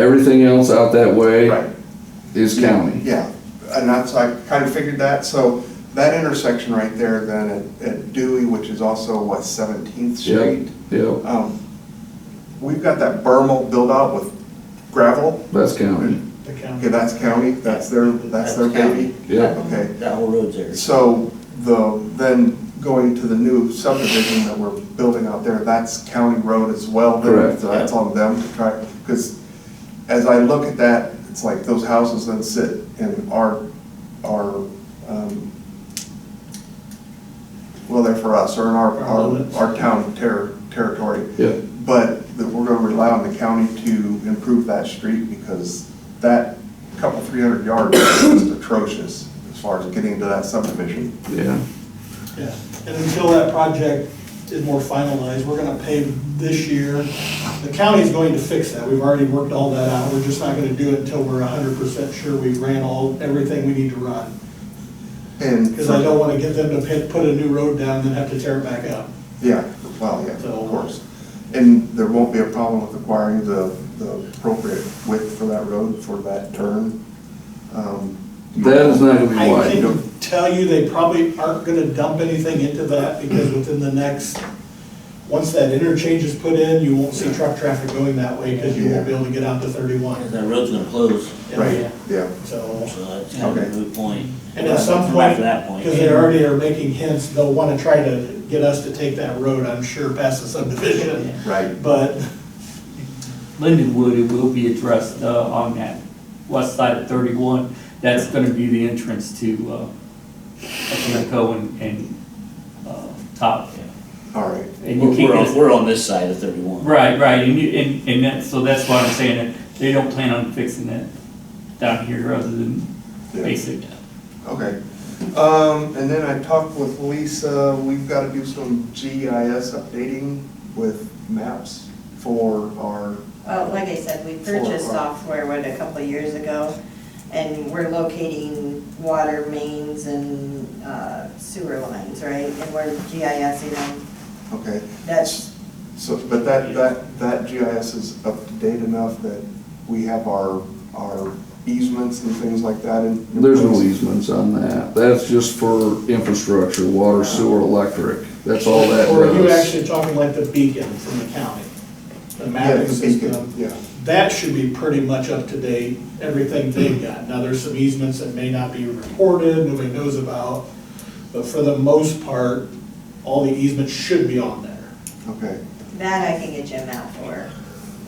Everything else out that way Right, is county. yeah, and that's, I kind of figured that, so that intersection right there then at- at Dewey, which is also what, Seventeenth Yep, Street? yep, Um, We've got that Bermal build-out with gravel, that's county. The okay, county. that's county, that's their, that's their That's county. baby, Yep, okay. That whole road's there. So the, then going to the new subdivision that we're building out there, that's county road as well. then, Correct. so That's on them to try, because as I look at that, it's like those houses that sit in our, our, um, well, they're for us, or in our, Our our, limits. our town ter- territory. yep, But that we're gonna rely on the county to improve that street because that couple three hundred yards is just atrocious as far as getting to that subdivision. yeah, Yeah, and until that project is more finalized, we're gonna pave this year. The county's going to fix that, we've already worked all that out, we're just not gonna do it until we're hundred percent sure we ran all, everything we need to run. And, Because I don't wanna get them to pit- put a new road down and then have to tear it back up. yeah, well, yeah, of course. And there won't be a problem with acquiring the, the appropriate width for that road for that turn. Um, that is not gonna be I wide. can tell you, they probably aren't gonna dump anything into that, because within the next, once that interchange is put in, you won't see truck traffic going that way, because you won't be able to get out to thirty-one. That road's gonna close, Right, yeah, So. so that's kind of Okay. a moot point. And at some Come point, back to that point. because they already are making hints, they'll want to try to get us to take that road, I'm sure, past the subdivision. right, But, Lindenwood, it will be addressed uh, on that west side of 31. That's going to be the entrance to uh, Atletico and- and uh, Top. all right. And you We're, we're on, can't, we're on this side of thirty-one. right, right, and you, and and that's, so that's why I'm saying that they don't plan on fixing that down here other than Yeah. basic. Okay. Um, and then I talked with Lisa, we've gotta do some GIS updating with maps for our, Well, like I said, we purchased Four. software, what, a couple of years ago, and we're locating water mains and uh, sewer lines, right? And we're GISing them. okay. That's, So, but that, that, that GIS is up to date enough that we have our, our easements and things like that in. in There's no place? easements on that. That's just for infrastructure, water, sewer, electric. That's all that or are you does. actually talking like the beacon from the county? The Yeah, mapping the beacon, system? yeah, That should be pretty much up to date, everything they've got. Now, there's some easements that may not be reported, nobody knows about, but for the most part, all the easements should be on there. okay, that I can get Jim out for.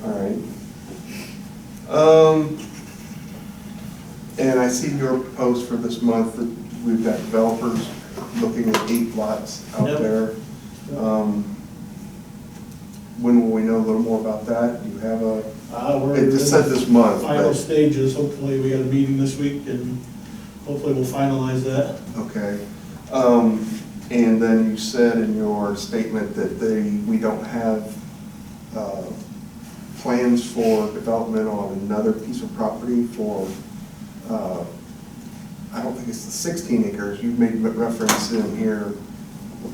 all right. Um, and I see your post for this month, that we've got developers looking at eight lots out Yep. there. Um, When will we know a little more about that? Do you have a, Uh, we're- it just said this month, final but, stages, hopefully, we got a meeting this week, and hopefully we'll finalize that. okay. Um, and then you said in your statement that they, we don't have, uh, plans for development on another piece of property for, uh, I don't think it's the sixteen acres, you made reference in here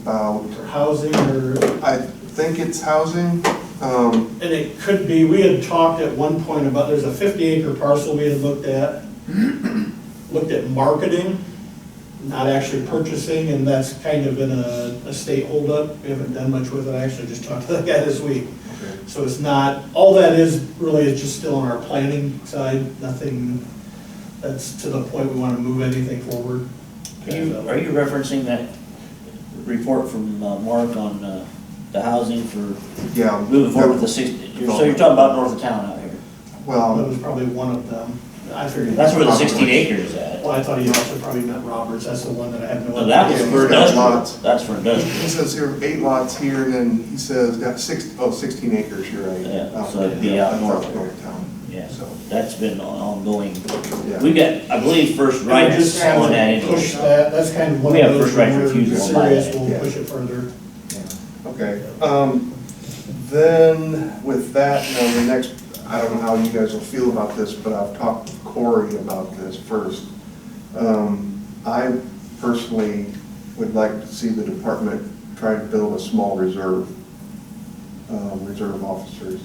about, For housing, or, I think it's housing, um, and it could be, we had talked at one point about, there's a fifty acre parcel we had looked at, looked at marketing, not actually purchasing, and that's kind of in a, a state holdup. We haven't done much with it, I actually just talked to that guy this week. So it's not, all that is really is just still on our planning side, nothing that's to the point we want to move anything forward. Are you, are you referencing that report from uh, Mark on, uh, the housing for yeah. moving forward with the six, you're- so you're talking about north of town out here? That Well, was probably one of them. I figured. That's where the sixteen acres is at. Well, I thought he also probably meant Roberts, that's the one that I have no. So that was Yeah, idea. he's for got industrial, lots. that's for he industrial, says here eight lots here, and then he says, got six, oh, sixteen acres, you're right. Yeah, Out so it'd be out that's north. north town, yeah, So, that's been on- ongoing. yeah. We got, I believe, first And we rights just have on to that. anyway. Push that, that's kind of one We of have those. first right where refusal we're on that, Serious, we'll yeah. push it further. Okay, um, then with that, now the next, I don't know how you guys will feel about this, but I've talked with Corey about this first. Um, I personally would like to see the department try to build a small uh, reserve, um, reserve officers.